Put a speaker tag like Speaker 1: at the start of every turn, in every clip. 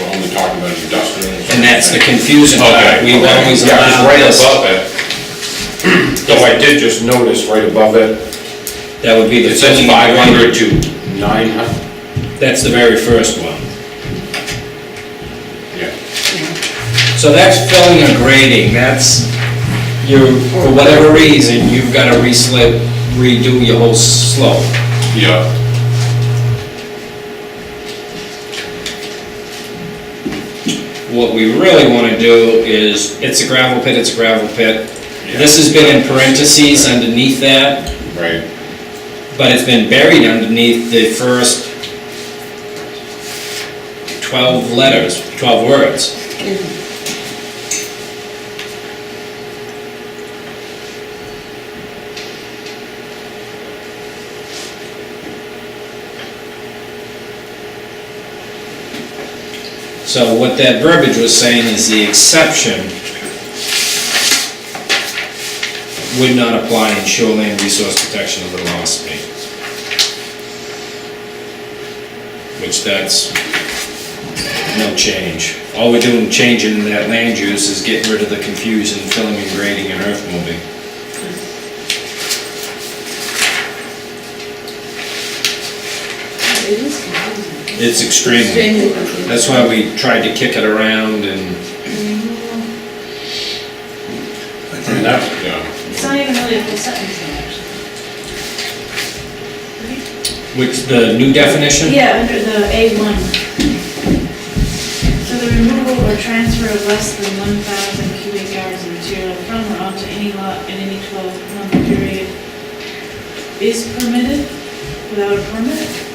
Speaker 1: we're only talking about industrial.
Speaker 2: And that's the confusing part.
Speaker 1: Okay.
Speaker 2: We've
Speaker 1: okay.
Speaker 2: always
Speaker 1: Yeah, 'cause
Speaker 2: allowed
Speaker 1: right
Speaker 2: this.
Speaker 1: above it, though I did just notice right above it,
Speaker 2: That would be the
Speaker 1: it says
Speaker 2: filling.
Speaker 1: five hundred to nine hundred.
Speaker 2: That's the very first one.
Speaker 1: Yeah.
Speaker 2: So that's filling or grading, that's, you, for whatever reason, you've gotta re-slip, redo your whole slope.
Speaker 1: Yeah.
Speaker 2: What we really wanna do is, it's a gravel pit, it's a gravel pit. This has been in parentheses underneath that,
Speaker 1: Right.
Speaker 2: but it's been buried underneath the first twelve letters, twelve words. So what that verbiage was saying is the exception would not apply in shoreline resource protection of the law space. Which that's no change. All we're doing, changing that land use is getting rid of the confusion, filling and grading and earth moving.
Speaker 3: It is confusing.
Speaker 2: It's extremely,
Speaker 3: Extremely confusing.
Speaker 2: that's why we tried to kick it around and,
Speaker 1: And that, yeah,
Speaker 4: It's not even really a full sentence though, actually.
Speaker 2: which, the new definition?
Speaker 4: Yeah, under the A1. So the removal or transfer of less than 1,000 cubic yards of material from or onto any lot in any 12-month period is permitted without a permit?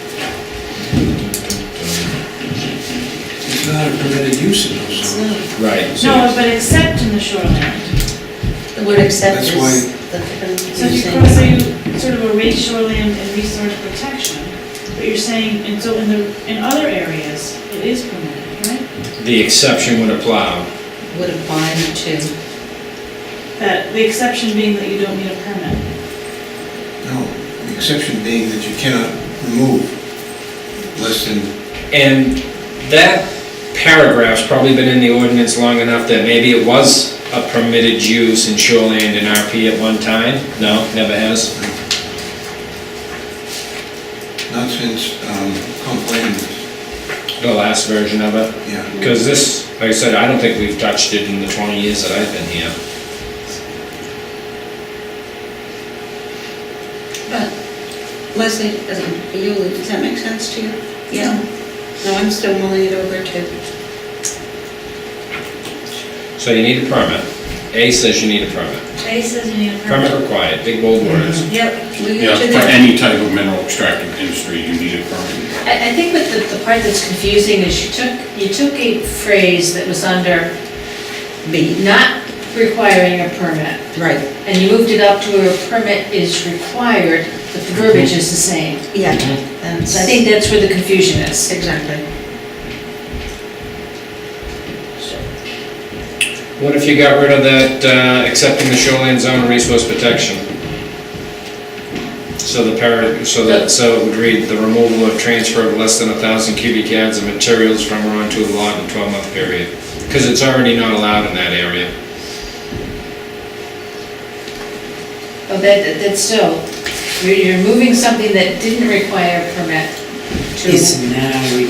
Speaker 5: It's not a permitted use in those zones.
Speaker 2: Right. so-
Speaker 4: No, but except in the shoreline.
Speaker 3: The word accept
Speaker 5: That's
Speaker 3: is the
Speaker 4: So if you
Speaker 3: confusing.
Speaker 4: cross, so you sort of erase shoreline and resource protection, but you're saying, and so in the, in other areas, it is permitted, right?
Speaker 2: The exception would apply.
Speaker 3: Would apply to,
Speaker 4: That, the exception being that you don't need a permit.
Speaker 5: No, the exception being that you cannot remove less than,
Speaker 2: And that paragraph's probably been in the ordinance long enough that maybe it was a permitted use in shoreland and RP at one time? No, never has?
Speaker 5: not since um, complained,
Speaker 2: The last version of it?
Speaker 5: yeah.
Speaker 2: Because this, like I said, I don't think we've touched it in the 20 years that I've been here.
Speaker 6: But Leslie, does it- you, does that make sense to you? Yeah. No, I'm still mulling it over too.
Speaker 2: So you need a permit. A says you need a permit.
Speaker 4: A says you need a permit.
Speaker 2: Permit required, big bold words.
Speaker 6: Yep. We
Speaker 1: yeah,
Speaker 6: got you
Speaker 1: for
Speaker 6: there.
Speaker 1: any type of mineral extracting industry, you need a permit.
Speaker 7: I, I think what the, the part that's confusing is you took, you took a phrase that was under
Speaker 6: B,
Speaker 7: not requiring a permit,
Speaker 6: right,
Speaker 7: and you moved it up to where a permit is required, but the verbiage is the same.
Speaker 6: yeah.
Speaker 1: Mm-hmm.
Speaker 7: So I think that's where the confusion is.
Speaker 6: Exactly.
Speaker 2: What if you got rid of that uh, accepting the shoreline zone resource protection? So the para, so that, so it would read, the removal or transfer of less than a thousand cubic yards of materials from or onto a lot in a twelve-month period. Because it's already not allowed in that area.
Speaker 7: But that, that's still, you're, you're moving something that didn't require a permit
Speaker 6: Is
Speaker 7: to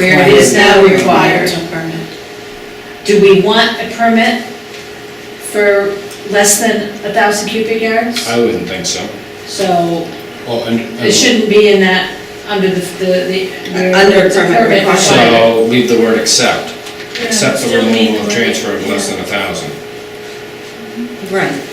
Speaker 7: where it is now required.
Speaker 6: A permit.
Speaker 7: Do we want a permit for less than a thousand cubic yards?
Speaker 2: I wouldn't think so.
Speaker 7: So
Speaker 2: Oh,
Speaker 1: Well, and.
Speaker 7: It shouldn't be in that, under the, the, the.
Speaker 6: Under
Speaker 7: the
Speaker 6: permit required.
Speaker 2: So leave the word accept, except the
Speaker 4: Still need
Speaker 2: removal
Speaker 4: the
Speaker 2: or
Speaker 4: word.
Speaker 2: transfer of less than a thousand.
Speaker 6: Right.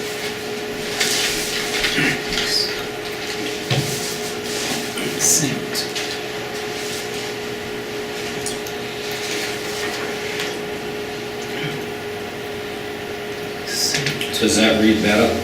Speaker 2: Does that read better?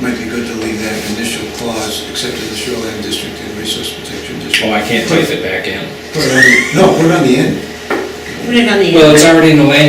Speaker 5: Might be good to leave that initial clause, except in the shoreline district and resource protection
Speaker 2: Oh,
Speaker 5: district.
Speaker 2: I can't type it back in.
Speaker 5: Put it on the- No, put it on the end.
Speaker 6: Put it on the.
Speaker 2: Well,
Speaker 6: end.
Speaker 2: it's already in the land